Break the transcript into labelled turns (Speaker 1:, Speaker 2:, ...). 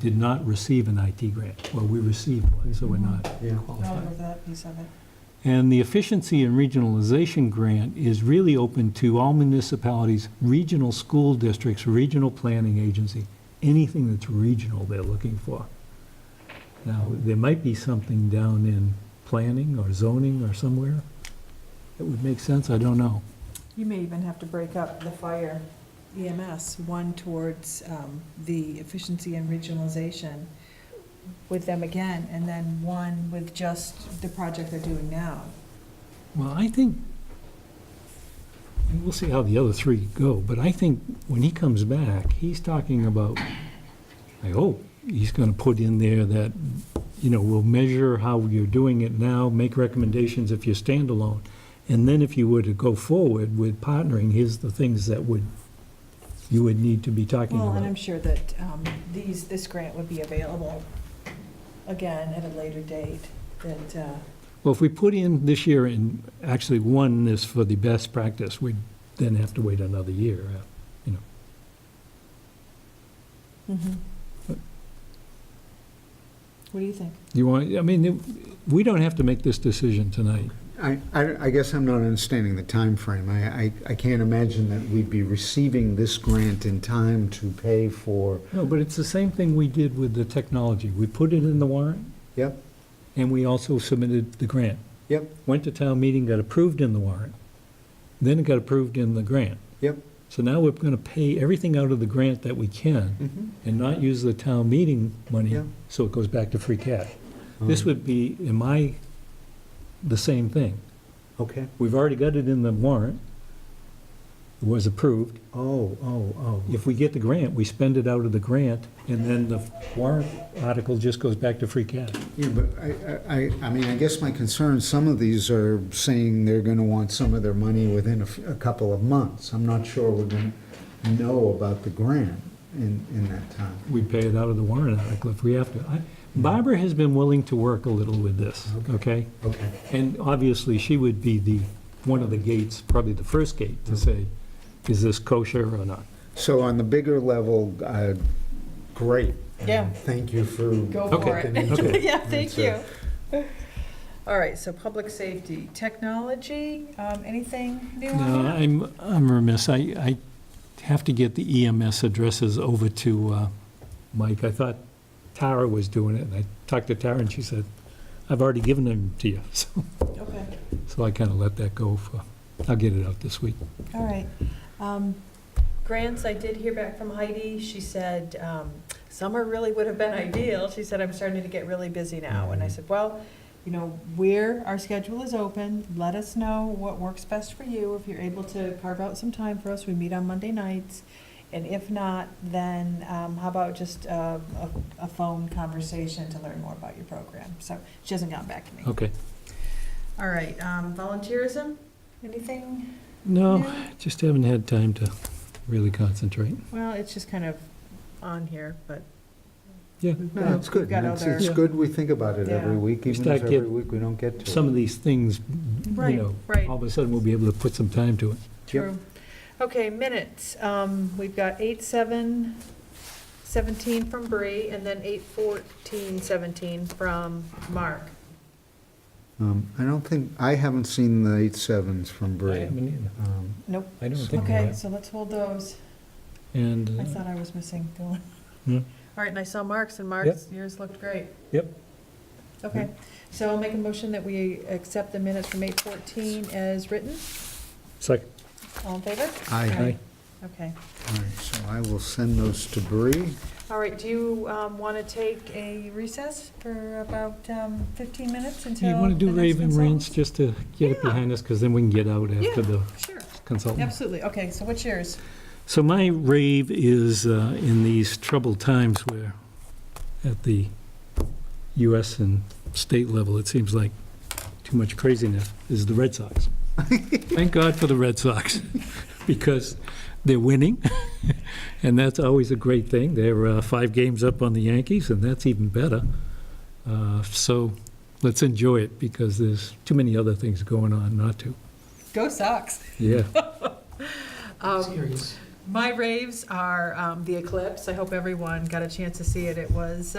Speaker 1: did not receive an IT grant. Well, we received one, so we're not
Speaker 2: Yeah.
Speaker 3: Oh, I
Speaker 1: qualified.
Speaker 3: remember that piece of it.
Speaker 1: And the Efficiency and Regionalization Grant is really open to all municipalities, regional school districts, regional planning agency, anything that's regional they're looking for. Now, there might be something down in planning or zoning or somewhere that would make sense, I don't know.
Speaker 3: You may even have to break up the fire EMS, one towards um, the efficiency and regionalization with them again, and then one with just the project they're doing now.
Speaker 1: Well, I think, and we'll see how the other three go, but I think when he comes back, he's talking about, I hope, he's gonna put in there that, you know, we'll measure how you're doing it now, make recommendations if you're standalone. And then if you were to go forward with partnering, here's the things that would, you would need to be talking
Speaker 3: Well, and I'm
Speaker 1: about.
Speaker 3: sure that um, these, this grant would be available again at a later date, that, uh,
Speaker 1: Well, if we put in this year and actually one is for the best practice, we'd then have to wait another year. uh,
Speaker 3: what do you think?
Speaker 1: You want, I mean, it- we don't have to make this decision tonight.
Speaker 2: I, I I guess I'm not understanding the time frame. I, I- I can't imagine that we'd be receiving this grant in time to pay for,
Speaker 1: No, but it's the same thing we did with the technology. We put it in the warrant,
Speaker 2: yep,
Speaker 1: and we also submitted the grant.
Speaker 2: yep,
Speaker 1: Went to town meeting, got approved in the warrant, then it got approved in the grant.
Speaker 2: yep.
Speaker 1: So now we're going to pay everything out of the grant that we
Speaker 2: mm-hmm,
Speaker 1: can and not use the town meeting money,
Speaker 2: Yeah.
Speaker 1: so it goes back to free cash. This would be, in my, the same thing.
Speaker 2: Okay.
Speaker 1: We've already got it in the warrant. It was approved.
Speaker 2: Oh, oh, oh.
Speaker 1: If we get the grant, we spend it out of the grant, and then the warrant article just goes back to free cash.
Speaker 2: Yeah, but I- I, I, I mean, I guess my concern, some of these are saying they're going to want some of their money within a f- a couple of months. I'm not sure we're going to know about the grant in, in that time.
Speaker 1: We pay it out of the warrant article if we have to. I- Barbara has been willing to work a little with this, okay?
Speaker 2: Okay.
Speaker 1: And obviously, she would be the, one of the gates, probably the first gate, to say, is this kosher or not?
Speaker 2: So on the bigger level, uh, great.
Speaker 3: Yeah.
Speaker 2: Thank you for.
Speaker 3: Go
Speaker 1: for it.
Speaker 2: looking into
Speaker 1: Okay.
Speaker 3: Yeah, thank
Speaker 2: That's it.
Speaker 3: you. All right, so public safety, technology, um, anything new on
Speaker 1: No,
Speaker 3: that?
Speaker 1: I'm, I'm remiss. I, I have to get the EMS addresses over to uh, Mike. I thought Tara was doing it, and I talked to Tara, and she said, I've already given them to you, so.
Speaker 3: Okay,
Speaker 1: So I kind of let that go for, I'll get it out this week.
Speaker 3: all right. Um, Grants, I did hear back from Heidi. She said, um, summer really would have been ideal. She said, I'm starting to get really busy now. And I said, well, you know, we're, our schedule is open. Let us know what works best for you. If you're able to carve out some time for us, we meet on Monday nights. And if not, then um, how about just uh, a, a phone conversation to learn more about your program? So she hasn't gotten back to me.
Speaker 1: Okay.
Speaker 3: All right, um, volunteerism, anything?
Speaker 1: No,
Speaker 3: new?
Speaker 1: just haven't had time to really concentrate.
Speaker 3: Well, it's just kind of on here, but.
Speaker 1: Yeah.
Speaker 3: we've
Speaker 2: No,
Speaker 3: got-
Speaker 2: it's good.
Speaker 3: We've got
Speaker 2: It's,
Speaker 3: other,
Speaker 2: it's good we think about it every
Speaker 3: Yeah.
Speaker 2: week,
Speaker 1: We
Speaker 2: even
Speaker 1: start
Speaker 2: if every
Speaker 1: getting
Speaker 2: week we don't get to it.
Speaker 1: Some of these things, you
Speaker 3: Right,
Speaker 1: know,
Speaker 3: right.
Speaker 1: all of a sudden we'll be able to put some time to it.
Speaker 3: true. Okay, minutes, um, we've got eight, seven, seventeen from Bree, and then eight, fourteen, seventeen from Mark.
Speaker 2: Um, I don't think, I haven't seen the eight sevens from
Speaker 1: I
Speaker 2: Bree.
Speaker 1: haven't either.
Speaker 2: Um,
Speaker 3: Nope.
Speaker 1: I don't think of
Speaker 3: Okay,
Speaker 1: that.
Speaker 3: so let's hold those. I
Speaker 1: And, uh,
Speaker 3: thought I was missing the one.
Speaker 1: Hmm.
Speaker 3: All right, and I saw Mark's, and Mark's, yours looked great.
Speaker 1: Yep.
Speaker 3: Okay, so I'll make a motion that we accept the minutes from eight fourteen as written.
Speaker 1: second,
Speaker 3: All in favor?
Speaker 2: I,
Speaker 1: aye.
Speaker 3: Okay.
Speaker 2: all right, so I will send those to Bree.
Speaker 3: All right, do you want to take a recess for about um, 15 minutes
Speaker 1: Do
Speaker 3: until?
Speaker 1: you want to do
Speaker 3: the next
Speaker 1: Raven Ranch
Speaker 3: consultants?
Speaker 1: just to get it
Speaker 3: Yeah.
Speaker 1: behind us? Because then we can get out after
Speaker 3: Yeah.
Speaker 1: the
Speaker 3: Sure,
Speaker 1: consultant.
Speaker 3: absolutely. Okay, so what's yours?
Speaker 1: So my rave is uh, in these troubled times where at the US and state level, it seems like too much craziness, is the Red Sox. Thank God for the Red Sox because they're winning. And that's always a great thing. They're uh, five games up on the Yankees, and that's even better. Uh, So let's enjoy it because there's too many other things going on not to.
Speaker 3: Go Sox.
Speaker 1: Yeah.
Speaker 3: Um, my raves are um, the Eclipse. I hope everyone got a chance to see it. It was